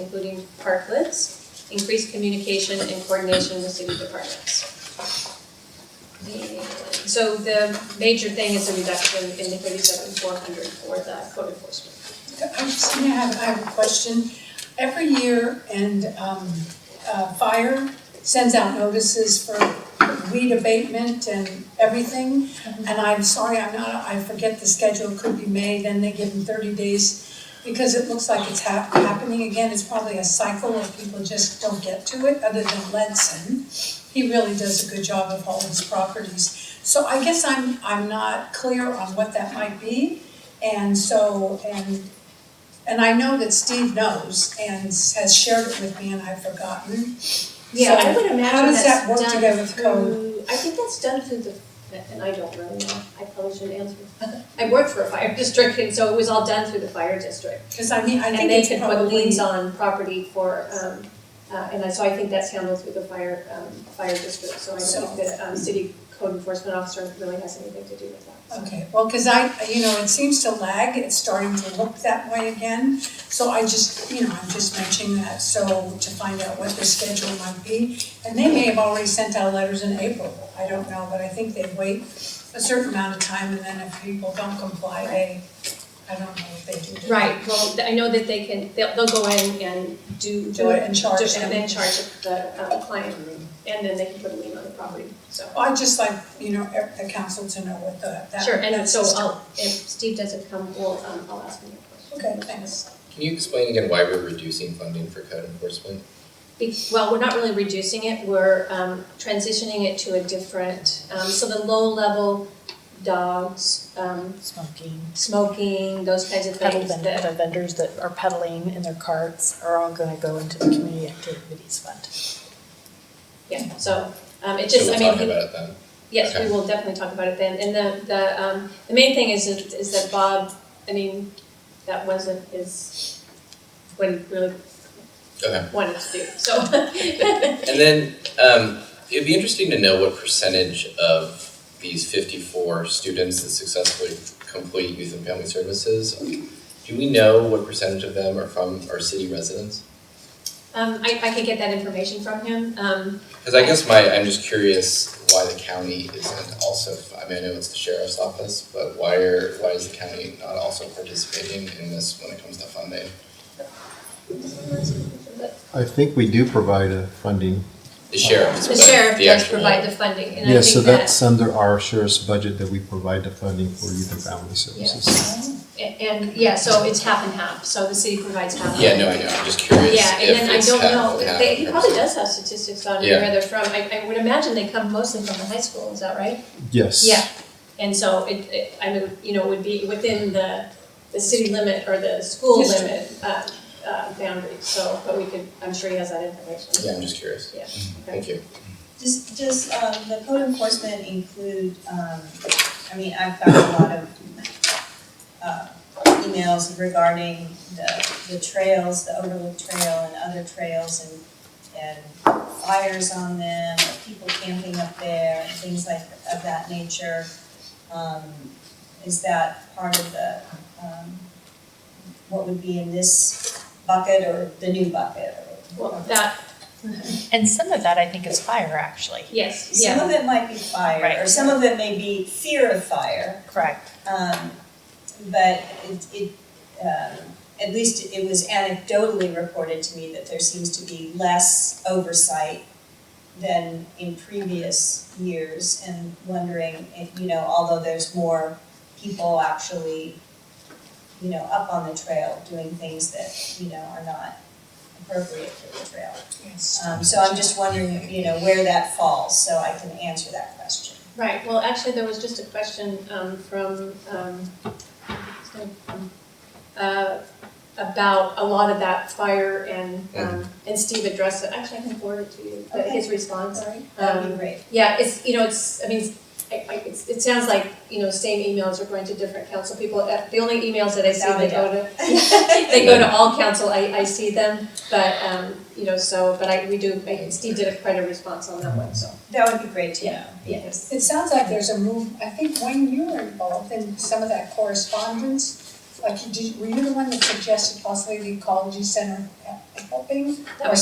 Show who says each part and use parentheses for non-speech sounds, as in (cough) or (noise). Speaker 1: including parklets, increased communication and coordination with city departments. The- So the major thing is a reduction in the thirty-seven four hundred for the code enforcement.
Speaker 2: I just gonna have, I have a question. Every year, and, um, uh, fire sends out notices for weed abatement and everything.
Speaker 1: Mm-hmm.
Speaker 2: And I'm sorry, I'm not, I forget the schedule, it could be May, then they give them thirty days, because it looks like it's hap- happening again. It's probably a cycle of people just don't get to it, other than Ledson. He really does a good job of all his properties. So I guess I'm, I'm not clear on what that might be. And so, and and I know that Steve knows and has shared it with me and I've forgotten.
Speaker 1: Yeah, I
Speaker 2: So
Speaker 1: would
Speaker 2: how
Speaker 1: imagine
Speaker 2: does that work
Speaker 1: that's
Speaker 2: together
Speaker 1: done
Speaker 2: with code?
Speaker 1: through, I think that's done through the, and I don't really know, I probably should answer. (laughs) I worked for a fire district and so it was all done through the fire district.
Speaker 2: Cause I mean, I
Speaker 1: And
Speaker 2: think
Speaker 1: they
Speaker 2: it's
Speaker 1: could
Speaker 2: probably.
Speaker 1: put liens on property for, um, uh, and I- so I think that's handled through the fire, um, fire district, so I
Speaker 2: So-
Speaker 1: don't think that, um, city code enforcement officer really has anything to do with that.
Speaker 2: Okay, well, cause I, you know, it seems to lag, it's starting to look that way again. So I just, you know, I'm just mentioning that, so to find out what the schedule might be. And they may have already sent out letters in April, I don't know, but I think they wait a certain amount of time and then if people don't comply, they, I don't know what they do.
Speaker 1: Right, well, th- I know that they can, they'll, they'll go in and do.
Speaker 2: Do it and charge
Speaker 1: do-
Speaker 2: them.
Speaker 1: And then charge the, um, client, and then they can put a lien on the property, so.
Speaker 2: I'd just like, you know, ev- the council to know what the, that.
Speaker 1: Sure, and
Speaker 2: that
Speaker 1: so
Speaker 2: system-
Speaker 1: I'll, if Steve doesn't come, we'll, um, I'll ask him that question.
Speaker 2: Okay, thanks.
Speaker 3: Can you explain again why we're reducing funding for code enforcement?
Speaker 1: Be- Well, we're not really reducing it, we're um, transitioning it to a different, um, so the low-level dogs, um,
Speaker 4: smoking.
Speaker 1: smoking, those kinds of
Speaker 4: Pedal
Speaker 1: things
Speaker 4: vendors,
Speaker 1: that,
Speaker 4: the vendors that are peddling in their carts are all gonna go into the community activities fund.
Speaker 1: yeah, so, um, it
Speaker 3: So
Speaker 1: just,
Speaker 3: we'll
Speaker 1: I
Speaker 3: talk
Speaker 1: mean,
Speaker 3: about
Speaker 1: (laughs)
Speaker 3: it then.
Speaker 1: yes, we
Speaker 3: okay.
Speaker 1: will definitely talk about it then. And the, the, um, the main thing is, is that Bob, I mean, that wasn't his, what he really
Speaker 3: Okay.
Speaker 1: wanted to do, so. (laughs)
Speaker 3: And then, um, it'd be interesting to know what percentage of these fifty-four students that successfully complete youth and family services, do we know what percentage of them are from, are city residents?
Speaker 1: Um, I, I could get that information from him, um,
Speaker 3: Cause I guess my, I'm just curious why the county isn't also, I mean, I know it's the sheriff's office, but why are, why is the county not also participating in this when it comes to funding?
Speaker 5: I think we do provide a funding.
Speaker 3: The sheriff's,
Speaker 1: the
Speaker 3: but
Speaker 1: sheriff
Speaker 3: the
Speaker 1: does
Speaker 3: actual-
Speaker 1: provide the funding, and I think that.
Speaker 5: Yes, so that's under our sheriff's budget that we provide the funding for youth and family services.
Speaker 1: A- And, yeah, so it's half and half, so the city provides half.
Speaker 3: Yeah, no, I know, I'm just curious
Speaker 1: Yeah, and then
Speaker 3: if
Speaker 1: I
Speaker 3: it's
Speaker 1: don't
Speaker 3: half
Speaker 1: know,
Speaker 3: and half
Speaker 1: they, he
Speaker 3: or
Speaker 1: probably
Speaker 3: something.
Speaker 1: does have statistics on
Speaker 3: Yeah.
Speaker 1: where they're from, I, I would imagine they come mostly from the high school, is that right?
Speaker 5: Yes.
Speaker 1: Yeah, and so it, it, I mean, you know, would be within the, the city limit or the school
Speaker 2: District.
Speaker 1: limit, uh, uh, boundaries, so, but we could, I'm sure he has that information.
Speaker 3: Yeah, I'm just curious,
Speaker 1: Yeah,
Speaker 3: thank you.
Speaker 6: Does, does, um, the code enforcement include, um, I mean, I've got a lot of, uh, emails regarding the, the trails, the overlook trail and other trails and, and fires on them, people camping up there, and things like, of that nature. Um, is that part of the, um, what would be in this bucket or the new bucket or?
Speaker 1: well, that,
Speaker 4: And some of that I think is fire actually.
Speaker 1: yes,
Speaker 6: Some
Speaker 1: yeah,
Speaker 6: of it might be fire, or
Speaker 4: Right.
Speaker 6: some of it may be fear of fire,
Speaker 4: Correct.
Speaker 6: um, but it, it, um, at least it was anecdotally reported to me that there seems to be less oversight than in previous years, and wondering if, you know, although there's more people actually, you know, up on the trail doing things that, you know, are not appropriate for the trail. Um, so I'm just wondering, you know, where that falls, so I can answer that question.
Speaker 1: right, well, actually, there was just a question, um, from, um, it's gonna come, uh, about a lot of that fire and, um, and Steve addressed it, actually, I can forward it to you, but his response.
Speaker 6: Sorry?
Speaker 1: Um,
Speaker 6: That'd be great.
Speaker 1: Yeah, it's, you know, it's, I mean, I, I, it's, it sounds like, you know, same emails are going to different council people, Uh, the only emails that I see, they go (laughs) to, they go to all council, I, I see them, but, um, you know, so, but I, we do, I- Steve did a quite a response on that one, so,
Speaker 6: That would be great to know.
Speaker 1: yes.
Speaker 2: It sounds like there's a move, I think when you were involved in some of that correspondence, like you did, were you the one that suggested possibly the ecology center
Speaker 7: helping?
Speaker 2: That was